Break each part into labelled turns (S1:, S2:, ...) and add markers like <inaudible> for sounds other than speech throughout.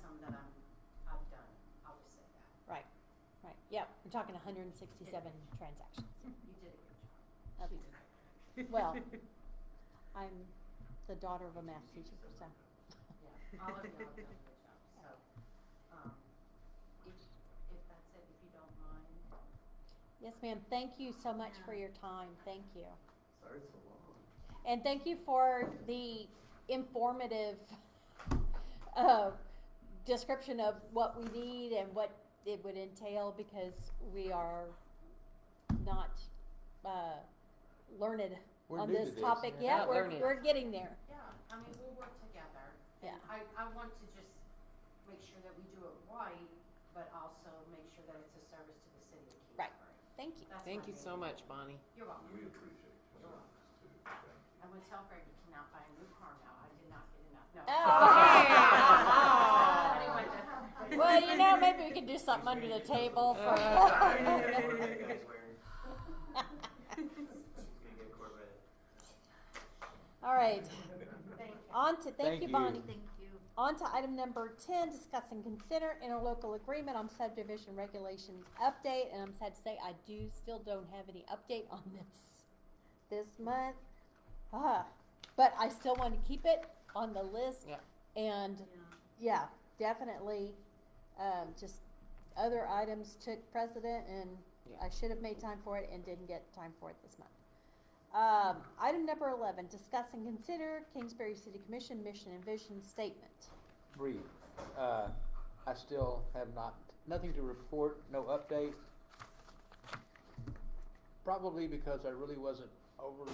S1: <laughs> I'm talking hundred and sixty-seven transactions.
S2: You did a good job.
S1: Okay.
S2: She did.
S1: Well, I'm the daughter of a math teacher, so.
S2: Yeah, all of y'all have done a
S1: <laughs>
S2: good job, so, um, if, if that's it, if you don't mind,
S1: Yes, ma'am, thank you so much for
S2: Yeah.
S1: your time, thank you.
S3: Sorry it's so long.
S1: And thank you for the informative, <laughs> uh, description of what we need and what it would entail, because we are not, uh, learned
S4: We're
S1: on
S4: new to
S1: this
S4: this.
S1: topic
S4: Yeah.
S1: yet,
S4: Not
S1: we're,
S4: learning.
S1: we're getting there.
S2: yeah, I mean, we'll work together.
S1: Yeah.
S2: And I, I want to just make sure that we do it right, but also make sure that it's a service to the city of
S1: Right.
S2: Kingsbury.
S1: Thank you.
S2: That's
S5: Thank
S2: my
S5: you
S2: main
S5: so
S2: goal.
S5: much, Bonnie.
S2: You're welcome.
S3: We appreciate your service too, thank you.
S2: I'm gonna tell Greg you cannot buy a new car now, I did not get enough, no. <laughs>
S1: Oh.
S2: Anyway, that's-
S1: Well, you know, maybe we could do something under the table
S4: Uh,
S6: What
S1: for.
S6: are you guys wearing? She's gonna get a Corvette.
S1: <laughs> All right,
S2: Thank you.
S1: on to, thank
S4: Thank
S1: you,
S4: you.
S1: Bonnie.
S2: Thank you.
S1: On to item number ten, discuss and consider interlocal agreement on subdivision regulations update, and I'm sad to say, I do still don't have any update on this, this month. Ah, but I still want to keep it on the list.
S5: Yeah.
S1: And, yeah, definitely, um, just other items took precedent, and
S5: Yeah.
S1: I should have made time for it and didn't get time for it this month. Um, item number eleven, discuss and consider Kingsbury City Commission mission and vision statement.
S4: Brief. Uh, I still have not, nothing to report, no update. Probably because I really wasn't overly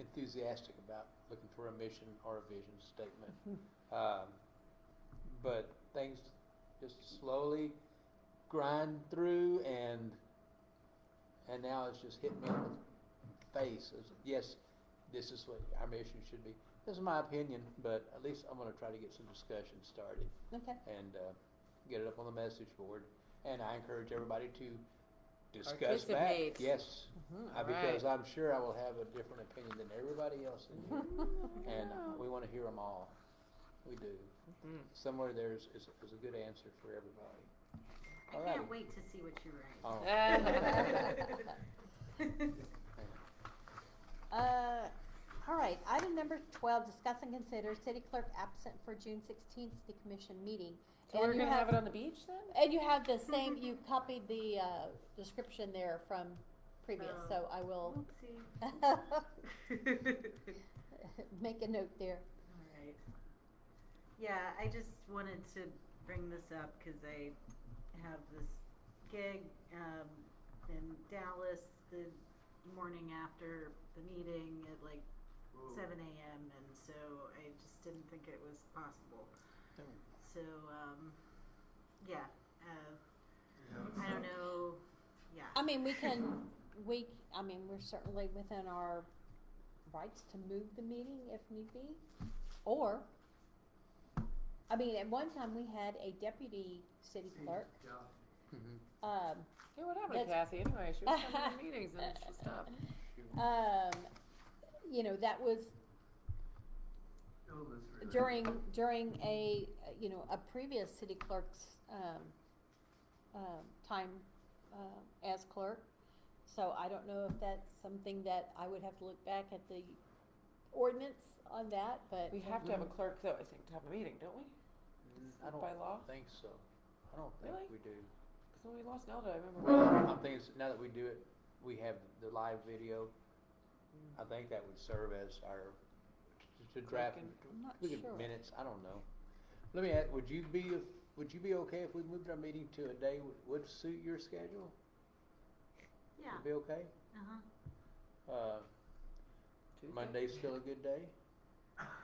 S4: enthusiastic about looking for a mission or a vision statement.
S1: <laughs>
S4: Um, but things just slowly grind through and, and now it's just hit me in the face. It's, yes, this is what our mission should be. This is my opinion, but at least I'm gonna try to get some discussion started
S1: Okay,
S4: and, uh, get it up on the message board. And I encourage everybody to discuss
S5: Participate.
S4: back, yes,
S5: Mhm,
S4: I-
S5: all
S4: because
S5: right.
S4: I'm sure I will have a different opinion than everybody else in
S5: <laughs>
S4: here. And uh, we wanna hear them all. We do.
S5: Mhm.
S4: Somewhere there's, is, is a good answer for everybody.
S2: I
S4: All
S2: can't
S4: right.
S2: wait to see what you write. <laughs>
S4: Oh,
S1: <laughs> uh, all right, item number twelve, discuss and consider city clerk absent for June sixteenth city commission meeting.
S5: So we're
S1: And you
S5: gonna have
S1: have-
S5: it on the beach then?
S1: And you have the same, you copied the, uh, description there from previous,
S2: Oh.
S1: so I
S7: <laughs>
S1: will
S2: Oopsie.
S1: make a note there.
S7: Alright. Yeah, I just wanted to bring this up because I have this gig um, in Dallas the morning after the meeting at like
S6: Ooh.
S7: 7 a.m. and so I just didn't think it was possible.
S4: Oh.
S7: So um, yeah, uh,
S6: Yeah,
S7: I
S6: so-
S7: don't know. Yeah.
S1: I mean, we can, we, I mean, we're certainly within our rights to move the meeting if need be, or, I mean, at one time, we had a deputy city clerk,
S6: Yeah.
S4: mhm.
S1: um,
S5: Yeah, what happened to
S1: That's-
S5: Kathy anyway? She was coming <laughs> to the meetings and she stopped.
S1: um, you know, that was
S6: Oh, that's really-
S1: during, during a, you know, a previous city clerk's, um, um, time, uh, as clerk. So I don't know if that's something that I would have to look back at the ordinance on that, but.
S5: We have to have a clerk though, I think, to have a meeting, don't we?
S4: Mm-hmm. I
S5: By law?
S4: don't think so. I don't think
S5: Really?
S4: we do.
S5: Because when we lost Nelda, I remember.
S4: I'm thinking, s- now that we do it, we have the live video. I think that would serve as our, t- to draft,
S5: Clicking.
S1: I'm not
S4: we
S1: sure.
S4: could minutes, I don't know. Let me ask, would you be, would you be okay if we moved our meeting to a day would- would suit your schedule?
S7: Yeah.
S4: Would be okay?
S7: Uh-huh.
S4: Uh,
S5: Tuesday?
S4: Monday's still a good day?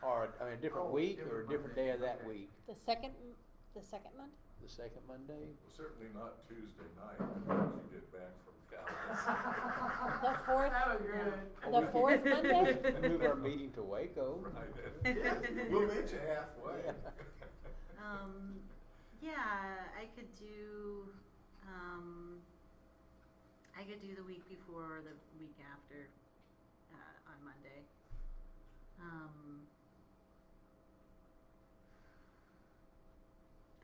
S4: Or, I mean, a different
S6: Oh,
S4: week or a
S6: different
S4: different
S6: Monday,
S4: day of that
S6: okay.
S4: week?
S1: The second, m- the second Monday?
S4: The second Monday?
S3: Well, Certainly not Tuesday night, once you get back from Calais.
S1: The fourth,
S6: That was good.
S4: Or
S1: The
S4: we could
S1: fourth Monday?
S4: <laughs> Move our meeting to Waco.
S3: Right,
S7: <laughs>
S3: and- we'll meet you
S4: <laughs>
S3: halfway.
S7: Um, yeah, I could do, um, I could do the week before or the week after, uh, on Monday. Um,